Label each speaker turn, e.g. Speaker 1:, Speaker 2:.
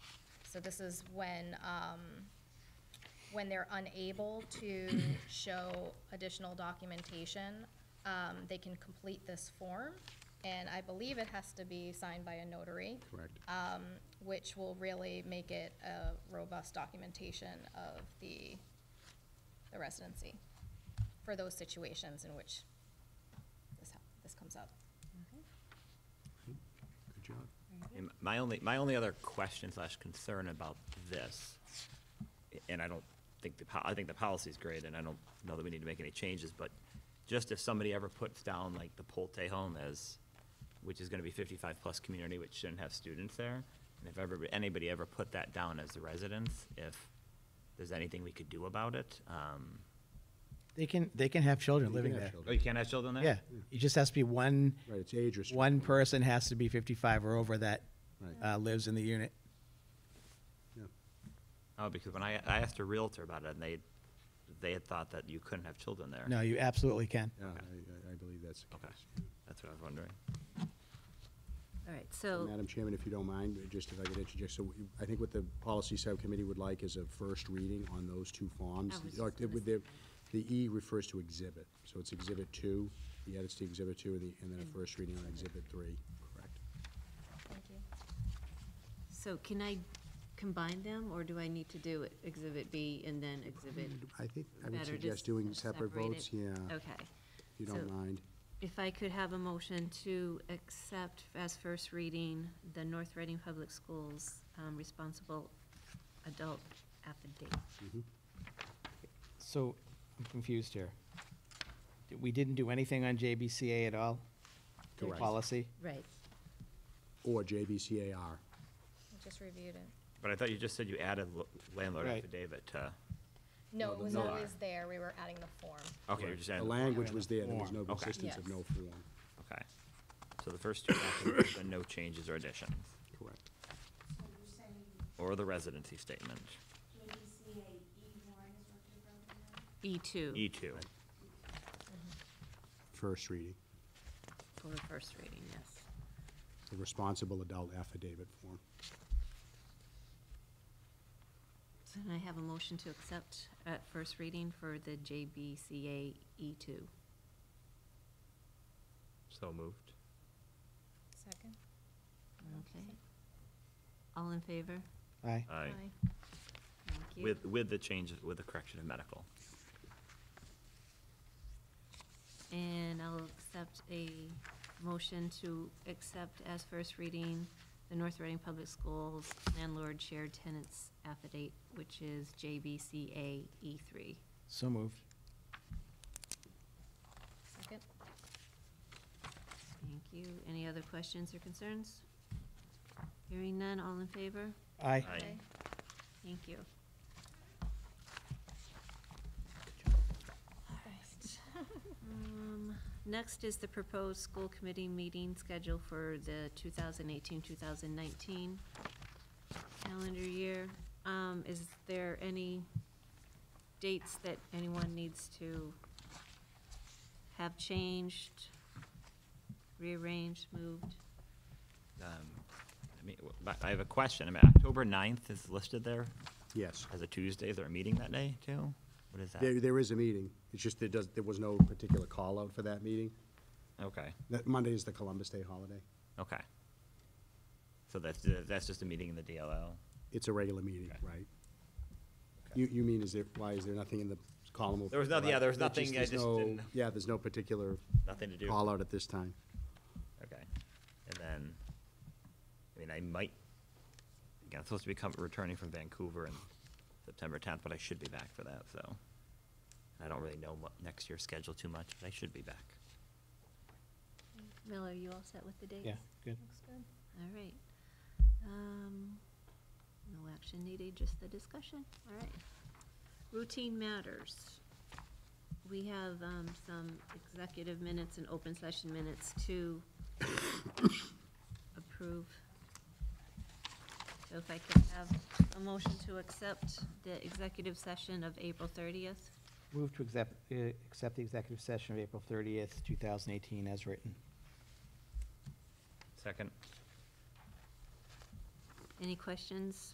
Speaker 1: So this is when, um, when they're unable to show additional documentation, um, they can complete this form, and I believe it has to be signed by a notary.
Speaker 2: Correct.
Speaker 1: um, Which will really make it a robust documentation of the, the residency for those situations in which this, hap- this comes up.
Speaker 2: Good job.
Speaker 3: And My only, my only other question slash concern about this, and I don't think the, po- I think the policy's great, and I don't know that we need to make any changes, but just if somebody ever puts down like the Polte home as, which is gonna be fifty-five plus community, which shouldn't have students there, and if ever, anybody ever put that down as the residence, if there's anything we could do about it, um,
Speaker 4: They can, they can have children
Speaker 2: You can
Speaker 4: living
Speaker 2: have
Speaker 4: there.
Speaker 2: children.
Speaker 3: oh, you can't have children there?
Speaker 4: Yeah, it just has to be one,
Speaker 2: Right, it's age restricted.
Speaker 4: one person has to be 55 or over that
Speaker 2: Right.
Speaker 4: uh, lives in the unit.
Speaker 2: Yeah.
Speaker 3: Oh, because when I, I asked a Realtor about it, and they, they had thought that you couldn't have children there.
Speaker 4: No, you absolutely can.
Speaker 2: Yeah, I- I, I believe that's the
Speaker 3: Okay,
Speaker 2: case.
Speaker 3: that's what I was wondering.
Speaker 5: All right, so,
Speaker 2: Madam Chairman, if you don't mind, just if I could interject, so we- I think what the policy subcommittee would like is a first reading on those two forms.
Speaker 5: I was just
Speaker 2: Like,
Speaker 5: gonna
Speaker 2: with The the E refers to exhibit, so it's exhibit two, the edits to exhibit two, and the- and then a first reading on exhibit three. Correct.
Speaker 1: Thank you.
Speaker 5: so can I combine them, or do I need to do Exhibit B and then Exhibit?
Speaker 2: I think Mm, I would
Speaker 5: better
Speaker 2: suggest
Speaker 5: just
Speaker 2: doing separate
Speaker 5: separate it?
Speaker 2: votes, yeah.
Speaker 5: Okay.
Speaker 2: If you don't
Speaker 5: So-
Speaker 2: mind.
Speaker 5: If I could have a motion to accept as first reading the North Reading Public Schools um, Responsible Adult Affidavit.
Speaker 4: So I'm confused here. We didn't do anything on JBCA at all? The
Speaker 5: Correct.
Speaker 4: Policy?
Speaker 5: Right.
Speaker 2: Or JBCAR.
Speaker 1: We Just reviewed it.
Speaker 3: But I thought you just said you added lo- landlord
Speaker 4: Right.
Speaker 3: affidavit to,
Speaker 1: No, it was
Speaker 2: no.
Speaker 1: always there, we were adding the form.
Speaker 3: okay, you're just
Speaker 2: The
Speaker 3: adding,
Speaker 2: language was there, there was no
Speaker 3: Form. Okay.
Speaker 2: persistence of
Speaker 1: Yes.
Speaker 2: no form.
Speaker 3: okay. So the first two documents, then no changes or additions,
Speaker 2: Correct.
Speaker 6: So you're saying
Speaker 3: or the residency statement,
Speaker 6: JDCA E1 E is what you're voting on?
Speaker 5: E2.
Speaker 3: E two.
Speaker 2: First reading,
Speaker 5: For the first reading, yes.
Speaker 2: the responsible adult affidavit form.
Speaker 5: So then I have a motion to accept at first reading for the JBCA E2.
Speaker 3: So moved.
Speaker 1: Second?
Speaker 5: Okay. All in favor?
Speaker 4: Aye.
Speaker 3: Aye.
Speaker 5: Thank you.
Speaker 3: With, with the changes, with the correction of medical.
Speaker 5: And I'll accept a motion to accept as first reading the North Reading Public Schools landlord shared tenants affidavit, which is JBCA E3.
Speaker 4: So moved.
Speaker 1: Second?
Speaker 5: Thank you. Any other questions or concerns? Hearing none, all in favor?
Speaker 4: Aye.
Speaker 3: Aye.
Speaker 1: Okay.
Speaker 5: Thank you. All right. Um, Next is the proposed school committee meeting schedule for the 2018-2019 calendar year. Um, Is there any dates that anyone needs to have changed, rearranged, moved?
Speaker 3: Um, I mean, w- but I have a question, I mean, October 9th is listed there
Speaker 2: Yes.
Speaker 3: as a Tuesday, is there a meeting that day too? What is
Speaker 2: There,
Speaker 3: that?
Speaker 2: there is a meeting. It's just there does, there was no particular call-out for that meeting.
Speaker 3: Okay,
Speaker 2: That Monday is the Columbus Day holiday.
Speaker 3: okay. So that's, that's just a meeting in the DLL?
Speaker 2: It's a regular meeting,
Speaker 3: Okay.
Speaker 2: right?
Speaker 3: Okay.
Speaker 2: You, you mean, is there, why is there nothing in the column? of-
Speaker 3: There was nothing- yeah, there was
Speaker 2: It's just-
Speaker 3: nothing, I
Speaker 2: there's
Speaker 3: just
Speaker 2: no-
Speaker 3: didn't-
Speaker 2: Yeah, there's no particular
Speaker 3: Nothing to do?
Speaker 2: call-out at this time.
Speaker 3: Okay, and then, I mean, I might, again, I'm supposed to be com- returning from Vancouver in September tenth, but I should be back for that, so. I don't really know what next year's schedule too much, but I should be back.
Speaker 5: Mel, are you all set with the dates?
Speaker 4: Yeah, good.
Speaker 1: Looks good.
Speaker 5: All right. Um, No action needed, just the discussion. All right. Routine matters. We have um, some executive minutes and open session minutes to approve. So if I could have a motion to accept the executive session of April 30th.
Speaker 4: Move to accept, uh, accept the executive session of April 30th, 2018 as written.
Speaker 3: Second?
Speaker 5: Any questions